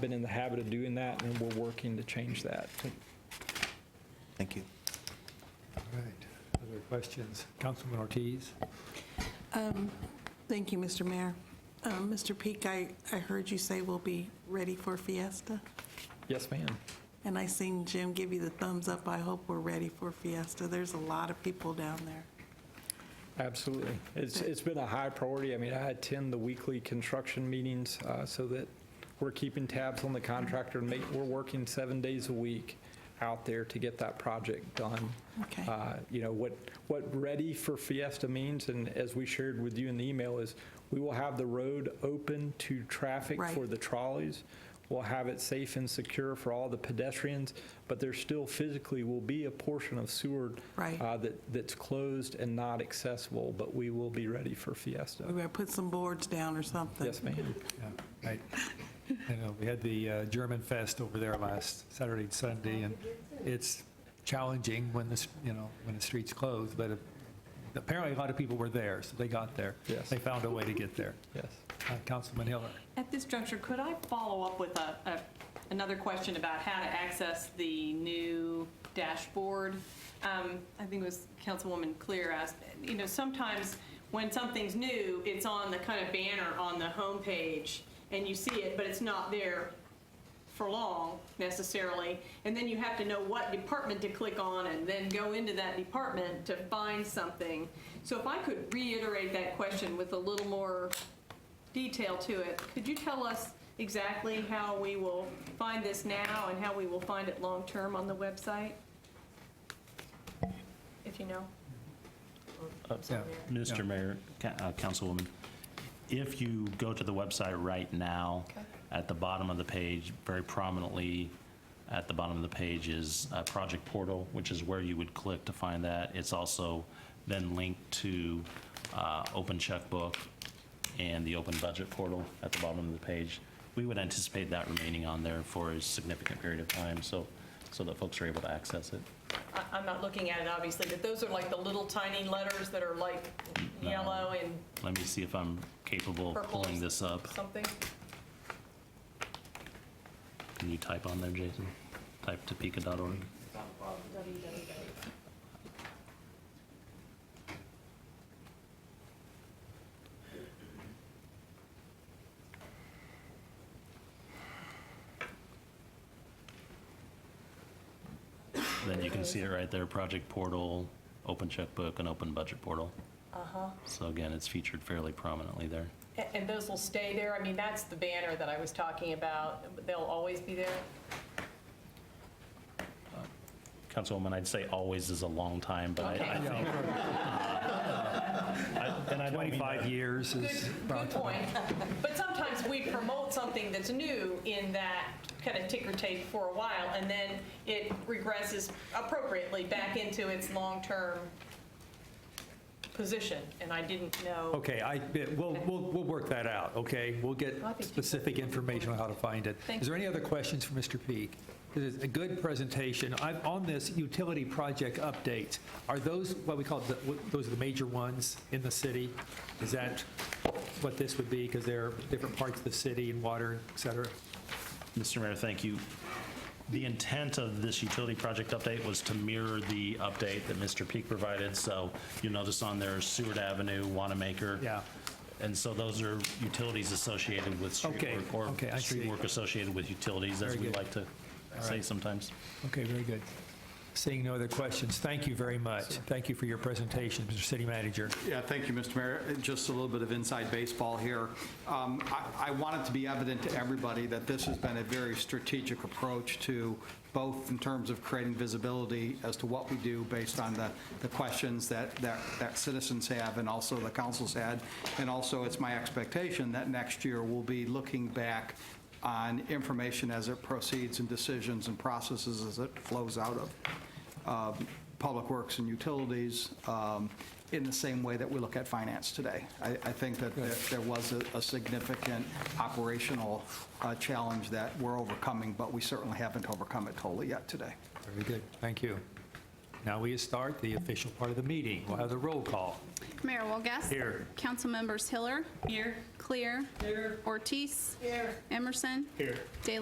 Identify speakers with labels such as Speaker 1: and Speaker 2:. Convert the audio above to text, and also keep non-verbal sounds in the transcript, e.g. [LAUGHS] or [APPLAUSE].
Speaker 1: been in the habit of doing that, and we're working to change that.
Speaker 2: Thank you.
Speaker 3: All right, other questions? Councilman Ortiz?
Speaker 4: Thank you, Mr. Mayor. Um, Mr. Peak, I, I heard you say we'll be ready for Fiesta,
Speaker 1: Yes, ma'am.
Speaker 4: and I seen Jim give you the thumbs up. I hope we're ready for Fiesta. There's a lot of people down there.
Speaker 1: Absolutely. It's, it's been a high priority. I mean, I attend the weekly construction meetings uh, so that we're keeping tabs on the contractor. and make- We're working seven days a week out there to get that project done.
Speaker 4: Okay.
Speaker 1: Uh, You know, what, what ready for Fiesta means, and as we shared with you in the email, is we will have the road open to traffic
Speaker 4: Right.
Speaker 1: for the trolleys. We'll have it safe and secure for all the pedestrians, but there still physically will be a portion of Seward
Speaker 4: Right.
Speaker 1: uh, that, that's closed and not accessible, but we will be ready for Fiesta.
Speaker 4: We better put some boards down or something.
Speaker 1: Yes, ma'am.
Speaker 3: Yeah, Right. I know, we had the uh, German Fest over there last Saturday and Sunday, and it's challenging when this, you know, when the streets close, but apparently a lot of people were there, so they got there.
Speaker 1: Yes.
Speaker 3: They found a way to get there.
Speaker 1: Yes.
Speaker 3: Uh, Councilman Hiller?
Speaker 5: At this juncture, could I follow up with a, a- another question about how to access the new dashboard? Um, I think it was Councilwoman Clear asked, you know, sometimes when something's new, it's on the kind of banner on the homepage, and you see it, but it's not there for long necessarily, and then you have to know what department to click on and then go into that department to find something. So if I could reiterate that question with a little more detail to it, could you tell us exactly how we will find this now and how we will find it long-term on the website? If you know.
Speaker 3: Yeah.
Speaker 6: Mr. Mayor, ca- uh, Councilwoman, if you go to the website right now,
Speaker 5: Okay.
Speaker 6: at the bottom of the page, very prominently at the bottom of the page is uh, Project Portal, which is where you would click to find that. It's also then linked to uh, Open Checkbook and the Open Budget Portal at the bottom of the page. We would anticipate that remaining on there for a significant period of time, so, so that folks are able to access it.
Speaker 5: I- I'm not looking at it, obviously, but those are like the little tiny letters that are like yellow and
Speaker 6: Let me see if I'm capable of
Speaker 5: purple.
Speaker 6: pulling this up.
Speaker 5: Something.
Speaker 6: Can you type on there, Jason? Type topeka.org. Then you can see it right there, project portal, open checkbook, and open budget portal. Uh-huh. So again, it's featured fairly prominently there.
Speaker 5: A- And those will stay there? I mean, that's the banner that I was talking about. They'll always be there?
Speaker 6: Councilwoman, I'd say always is a long time, but I-
Speaker 5: Okay.
Speaker 6: I think. uh, I- and I don't mean that-
Speaker 3: 25 years
Speaker 5: Good,
Speaker 3: is
Speaker 5: good point. [LAUGHS] But sometimes we promote something that's new in that kind of ticker tape for a while, and then it regresses appropriately back into its long-term position, and I didn't know.
Speaker 3: Okay, I, it- we'll, we'll, we'll work that out, okay? We'll get
Speaker 5: I think you-
Speaker 3: specific information on how to find it.
Speaker 5: Thank
Speaker 3: Is there
Speaker 5: you.
Speaker 3: any other questions for Mr. Peak? This is a good presentation. I'm, on this utility project updates, are those what we call, the- what- those are the major ones in the city? Is that what this would be? Because there are different parts of the city and water, et cetera.
Speaker 6: Mr. Mayor, thank you. The intent of this utility project update was to mirror the update that Mr. Peak provided. So you'll notice on there Seward Avenue, Wanamaker.
Speaker 3: Yeah.
Speaker 6: And so those are utilities associated with street
Speaker 3: Okay,
Speaker 6: work. or
Speaker 3: okay, I
Speaker 6: Street
Speaker 3: see.
Speaker 6: work associated with utilities, as
Speaker 3: Very
Speaker 6: we
Speaker 3: good.
Speaker 6: like to say sometimes.
Speaker 3: Okay, very good. Seeing no other questions, thank you very much. Thank you for your presentation, Mr. City Manager.
Speaker 7: Yeah, thank you, Mr. Mayor. Just a little bit of inside baseball here. Um, I I want it to be evident to everybody that this has been a very strategic approach to both in terms of creating visibility as to what we do based on the the questions that that that citizens have and also the council's had. And also, it's my expectation that next year we'll be looking back on information as it proceeds and decisions and processes as it flows out of uh, Public Works and Utilities um, in the same way that we look at finance today. I I think that there there was a- a significant operational uh, challenge that we're overcoming, but we certainly haven't overcome it totally yet today.
Speaker 3: Very good, thank you. Now we start the official part of the meeting. We'll have the roll call.
Speaker 8: Mayor Wolgast.
Speaker 3: Here.
Speaker 8: Councilmembers Hiller.
Speaker 5: Here?
Speaker 8: Clear.
Speaker 5: Here.
Speaker 8: Ortiz.
Speaker 5: Here.
Speaker 8: Emerson. Here. De